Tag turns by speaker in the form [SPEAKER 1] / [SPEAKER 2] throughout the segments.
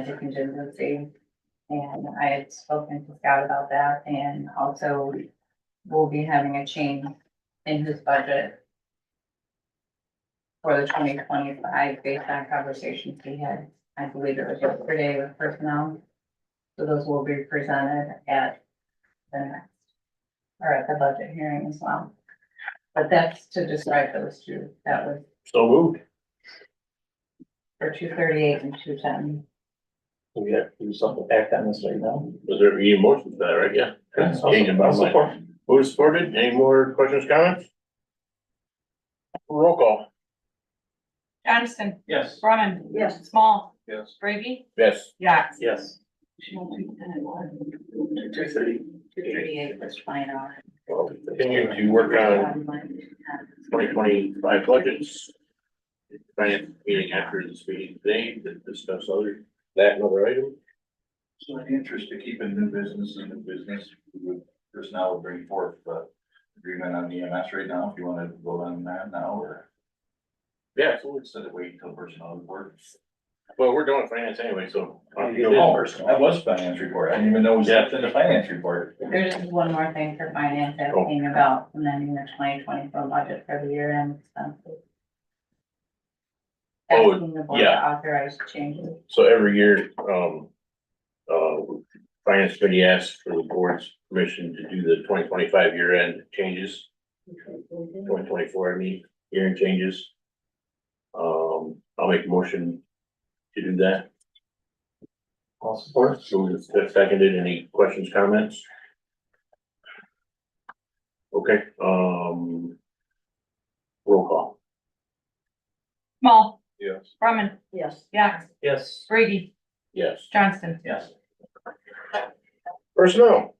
[SPEAKER 1] a contingency. And I had spoken to Scott about that and also we'll be having a change in his budget for the twenty twenty-five based on conversations we had, I believe it was yesterday with personnel. So those will be presented at the next, or at the budget hearing as well. But that's to describe those two, that was
[SPEAKER 2] So moved.
[SPEAKER 1] for two thirty-eight and two ten.
[SPEAKER 3] Do we have to do something back on this right now?
[SPEAKER 2] Was there any motion to that, right? Yeah.
[SPEAKER 3] I'll-
[SPEAKER 2] Changing
[SPEAKER 3] I'll
[SPEAKER 2] bottom line.
[SPEAKER 3] support.
[SPEAKER 2] Who's supported? Any more questions, comments? Roll call.
[SPEAKER 4] Johnston,
[SPEAKER 5] Yes.
[SPEAKER 4] Brumman. Yes. Small,
[SPEAKER 5] Yes.
[SPEAKER 4] Brady,
[SPEAKER 2] Yes.
[SPEAKER 4] Yax.
[SPEAKER 3] Yes.
[SPEAKER 5] Two thirty.
[SPEAKER 1] Two thirty-eight was final.
[SPEAKER 2] Well, Continue to work on twenty twenty-five budgets. Finance meeting after this meeting today to discuss other, that and other item.
[SPEAKER 5] So in the interest of keeping new business and new business, we would, personnel would bring forth the agreement on EMS right now, if you wanna vote on that now, or
[SPEAKER 2] Yeah,
[SPEAKER 5] so instead of waiting till personnel reports.
[SPEAKER 2] well, we're doing finance anyway, so.
[SPEAKER 5] That was finance report, I didn't even know it was
[SPEAKER 2] Yeah.
[SPEAKER 5] in the finance report.
[SPEAKER 1] There is one more thing for finance that
[SPEAKER 2] Oh.
[SPEAKER 1] came about, amending the twenty twenty-four budget for the year end expenses.
[SPEAKER 2] Oh,
[SPEAKER 1] Asking the board to
[SPEAKER 2] yeah.
[SPEAKER 1] authorize changes.
[SPEAKER 2] So every year, um, uh, finance committee asks for the board's permission to do the twenty twenty-five year end changes. Twenty twenty-four, I mean, year end changes. Um, I'll make a motion to do that.
[SPEAKER 3] All support.
[SPEAKER 2] Moved and seconded. Any questions, comments? Okay, um. Roll call.
[SPEAKER 4] Small,
[SPEAKER 5] Yes.
[SPEAKER 4] Brumman. Yes. Yax,
[SPEAKER 3] Yes.
[SPEAKER 4] Brady,
[SPEAKER 2] Yes.
[SPEAKER 4] Johnston.
[SPEAKER 5] Yes.
[SPEAKER 2] Personnel.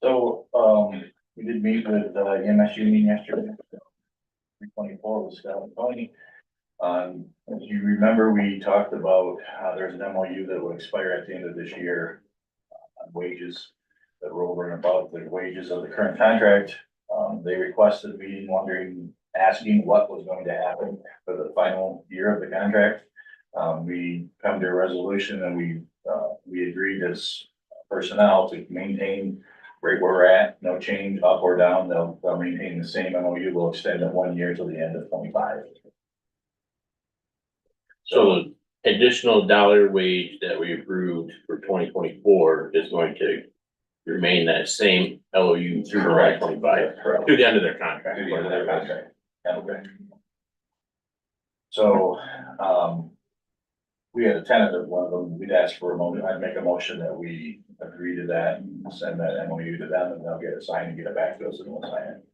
[SPEAKER 5] So, um, we did meet with uh, EMS union yesterday. Three twenty-four was Scott and Tony. Um, if you remember, we talked about how there's an MOU that will expire at the end of this year. uh, On wages that were over and above the wages of the current contract. Um, they requested me wondering, asking what was going to happen for the final year of the contract. Um, we come to a resolution and we, uh, we agreed as personnel to maintain right where we're at, no change up or down, they'll, they'll maintain the same MOU, we'll extend it one year till the end of twenty-five.
[SPEAKER 2] So the additional dollar wage that we approved for twenty twenty-four is going to remain that same LOU through twenty twenty-five,
[SPEAKER 5] Correct.
[SPEAKER 2] through the end of their
[SPEAKER 5] Through
[SPEAKER 2] contract.
[SPEAKER 5] the end of their contract. Okay. So, um, we had a tentative one of them, we'd ask for a motion, I'd make a motion that we agree to that, and send that MOU to them, and they'll get it signed and get it back to us and we'll sign it.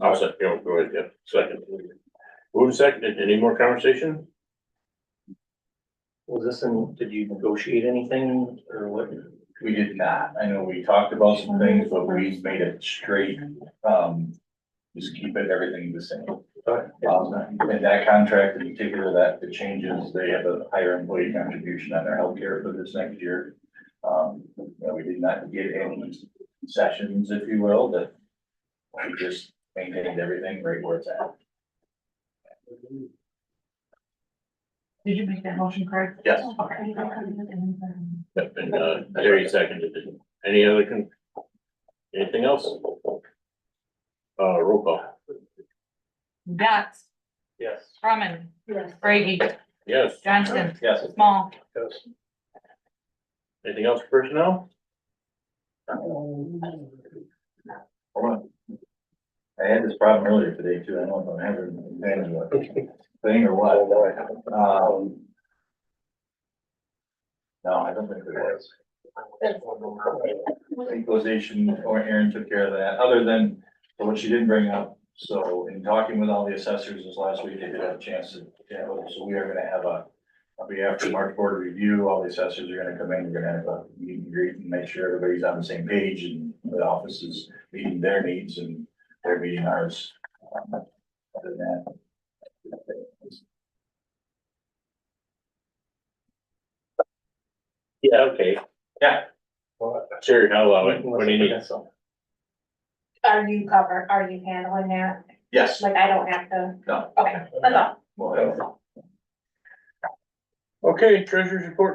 [SPEAKER 2] I'll second, yeah, go ahead, yeah, second. Move and seconded. Any more conversation?
[SPEAKER 3] Was this in, did you negotiate anything or what?
[SPEAKER 5] We did not, I know we talked about some things, but we made it straight, um, just keep it, everything the same. Um, in that contract in particular, that the changes, they have a higher employee contribution on their healthcare for this next year. Um, you know, we did not get any sessions, if you will, that we just maintained everything right where it's at.
[SPEAKER 4] Did you make that motion, Craig?
[SPEAKER 2] Yes.
[SPEAKER 4] Okay.
[SPEAKER 2] Yep, And, uh, Terry seconded it. Any other con? Anything else? Uh, roll call.
[SPEAKER 4] Yax,
[SPEAKER 3] Yes.
[SPEAKER 4] Brumman. Yes. Brady,
[SPEAKER 2] Yes.
[SPEAKER 4] Johnston,
[SPEAKER 5] Yes.
[SPEAKER 4] Small,
[SPEAKER 2] Anything else for personnel?
[SPEAKER 5] Hold on. I had this problem earlier today too. I don't know if I'm having an advantage of a thing or what. Um, No, I don't think it was. Equalization, or Aaron took care of that, other than what she didn't bring up. So in talking with all the assessors this last week, they did have a chance to, chat with them. so we are gonna have a, I'll be after March board review, all the assessors are gonna come in, we're gonna have a meet and greet and make sure everybody's on the same page and the office is meeting their needs and they're meeting ours. Um, Other than that.
[SPEAKER 2] Yeah, okay. Yeah. Sure, I'll allow it. What do you need?
[SPEAKER 6] Are you cover, are you handling that?
[SPEAKER 5] Yes,
[SPEAKER 6] Like, I don't have to,
[SPEAKER 5] no.
[SPEAKER 6] okay, that's all.
[SPEAKER 5] Well,
[SPEAKER 2] Okay, treasurer's report